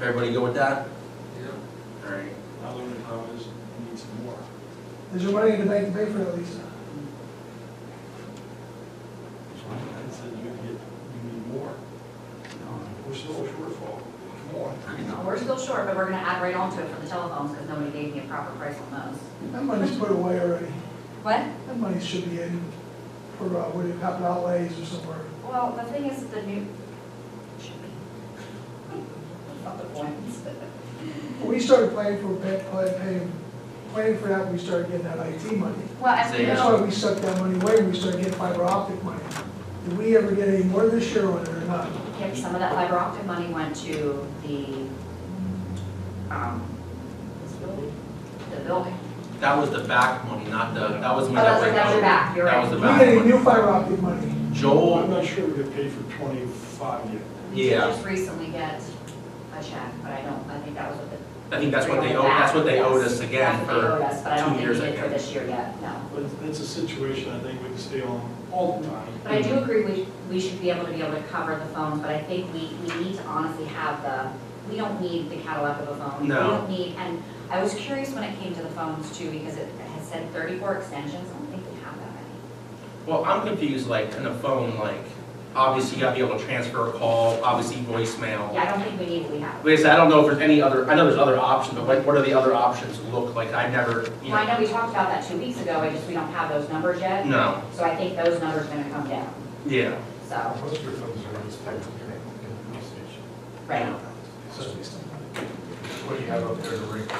Everybody go with that? Yeah, All right. I learned how it is, we need some more. There's your money in the bank to pay for it, Lisa. I said you get, you need more, we're still a shortfall, come on. We're still short, but we're gonna add right onto it for the telephones, because nobody gave me a proper price on those. That money's put away already. What? That money should be in for, uh, what do you, capital outlays or somewhere. Well, the thing is, the new. should be. Not the point. When we started planning for, pa- plan- paying, planning for that, we started getting that IT money. Well, as we Say That's go, why we sucked that money away, when we started getting fiber optic money. Did we ever get any more this year on it or not? if some of that fiber optic money went to the, um, this building? The building. That was the back money, not the, that was Oh, when that's that went right, that was over. the back, you're That right. was the We back get any one. new fiber optic money? Well, I'm Joel, not sure we get paid for twenty-five yet. We Yeah. just recently get a check, but I don't, I think that was what the. I think that's what they owe, that's what they owed us again That's what they owed for, us, but I don't two think years we did for ago. this year yet, no. But it's a situation I think we can stay on all the time. But I do agree, we, we should be able to be able to cover the phones, but I think we, we need to honestly have the, we don't need the catalog of a phone. No. We don't need, and I was curious when it came to the phones too, because it has said thirty-four extensions, I don't think we have that many. well, I'm confused, like, in a phone, like, obviously you gotta be able to transfer a call, obviously voicemail. Yeah, I don't think we need what we have. Like I said, I don't know if there's any other, I know there's other options, but what, what are the other options look like? I never, you Well, I know, know we talked about that two weeks ago, I just, we don't have those numbers yet, no, so I think those numbers are gonna come down, yeah. so, Most of your phones are on spectrum connected to the police station. right. So what do you have up there to ring them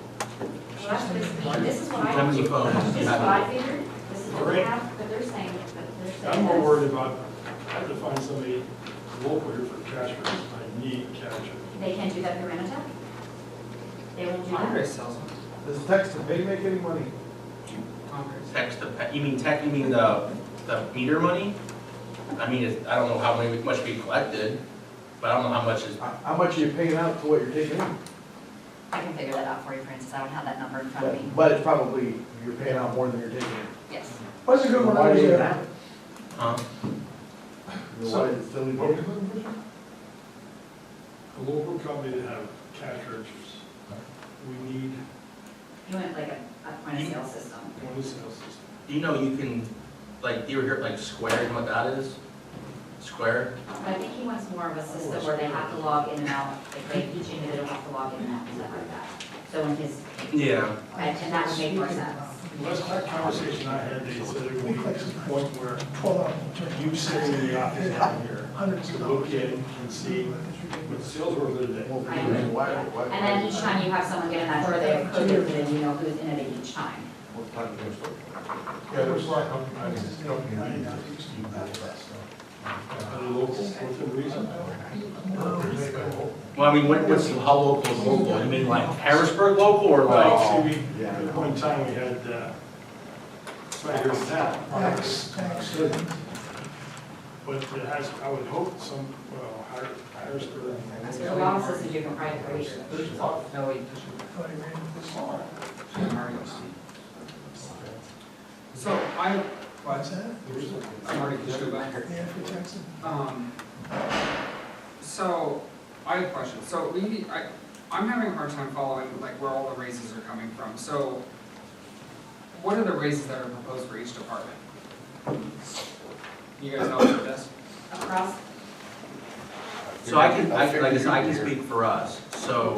Well, that's what it's- this is what How I, many phones this do is you what have? I figured, this is what we have, but they're saying, but they're saying. I'm more that's- worried about, I have to find somebody local here for cash rates, I need cash rates. They can't do that through Renatech? They won't do that? Congress sells them. Does text and pay make any money? Congress. Text to, pa- you mean tech, you mean the, the meter money? I mean, it's- I don't know how many- much we collected, but I don't know how much is, How how much are you paying out to what you're taking in? I can figure that out for you, Francis, I don't have that number in front of me. But- But it's probably, you're paying out more than you're taking in. Yes. What's a good one, I was there. huh? So why is it still illegal? A local company to have cash registers. We need You went like a, a point of sale system. one of the sales systems. Do you know you can, like, you were here, like Square, you know what that is? Square? But I think he wants more of a system where they have to log in and out, like they each individual has to log in and out, and stuff like that. So in his, Yeah. and and that would make more sense. Last that conversation I had, they said it would be at the point where Twelve of them, you sitting in the office down here hundreds to of look dollars. in and see what the sales were for the day. Well, I agree. why- why- And then each time you have someone get in that door, they have code, and then you know who's in it each time. What time do you start? Yeah, there's a lot of companies, you know, I didn't know. At a local, within reason. Well, I mean, what, what's, how local is local? You mean like Harrisburg local or Well, like? see, we, Yeah. at one time, we had, uh, right here in town, Tax, tax. but it has, I would hope some, well, Har- Harrisburg. There's a lot of systems you can probably create. No, wait, Thought he ran this far. there's Mario Steve. So I, What's that? I'm already just go back. Yeah, for taxes. Um, so I have a question. So we, need- I, I'm having a hard time following like where all the raises are coming from. So what are the raises that are proposed for each department? You guys help with this? Across, So I can, I, like I said, I can speak for us, so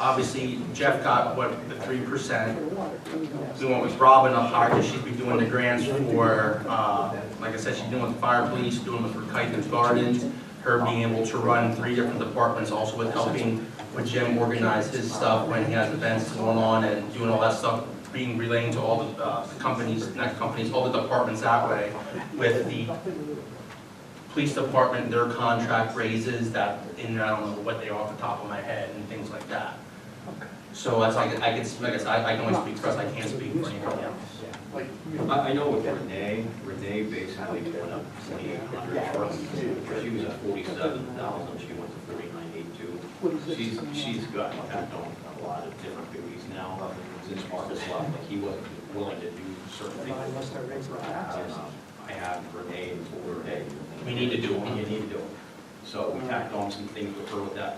obviously Jeff got what, the three percent. We went with Robin up higher, because she's been doing the grants for, uh, like I said, she's doing with fire police, doing with for Kyken's Gardens. Her being able to run three different departments, also with helping with Jim organize his stuff when he has events going on and doing all that stuff, being relaying to all the uh, companies, not companies, all the departments that way with the police department, their contract raises that, and I don't know what they are off the top of my head and things like that. So that's, I could, I could, like I said, I I can only speak for us, I can't speak for anybody else. I, I know with Renee, Renee basically went up twenty-eight hundred She was at forty-seven thousand, she went to thirty-nine eight-two. She's, she's gotten tapped on a lot of different duties now, since Marcus left, like he wasn't willing to do certain things. And, um, I have Renee and Renee. We need to do them. You need to do them. So we tacked on some things with her with that